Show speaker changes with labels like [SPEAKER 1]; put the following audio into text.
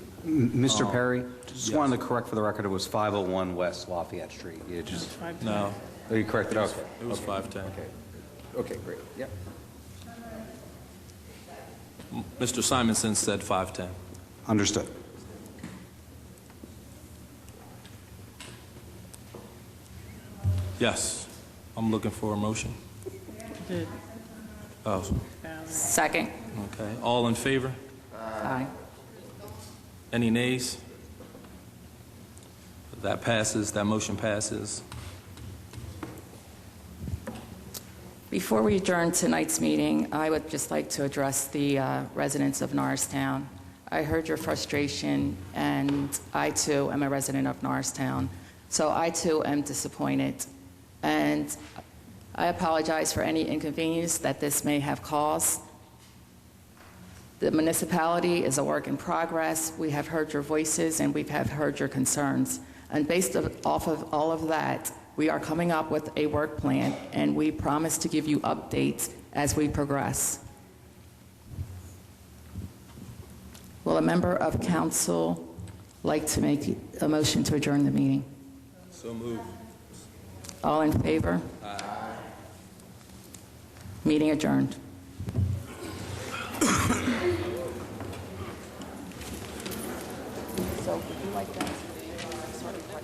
[SPEAKER 1] M- Mr. Perry, just wanted to correct for the record, it was 501 West Lafayette Street. You just,
[SPEAKER 2] No,
[SPEAKER 1] oh, you corrected, okay.
[SPEAKER 2] it was 510.
[SPEAKER 1] Okay, Okay, great, yep.
[SPEAKER 2] Mr. Simonson said 510.
[SPEAKER 1] Understood.
[SPEAKER 2] Yes, I'm looking for a motion.
[SPEAKER 3] Did
[SPEAKER 2] Oh,
[SPEAKER 4] Second.
[SPEAKER 2] okay. All in favor?
[SPEAKER 4] Aye.
[SPEAKER 2] Any nays? That passes, that motion passes.
[SPEAKER 4] Before we adjourn tonight's meeting, I would just like to address the uh, residents of Norristown. I heard your frustration, and I too am a resident of Norristown. So I too am disappointed. And I apologize for any inconvenience that this may have caused. The municipality is a work in progress. We have heard your voices and we have heard your concerns. And based of- off of all of that, we are coming up with a work plan and we promise to give you updates as we progress. Will a member of council like to make a motion to adjourn the meeting?
[SPEAKER 2] So moved.
[SPEAKER 4] All in favor? Aye. Meeting adjourned. So would you like that?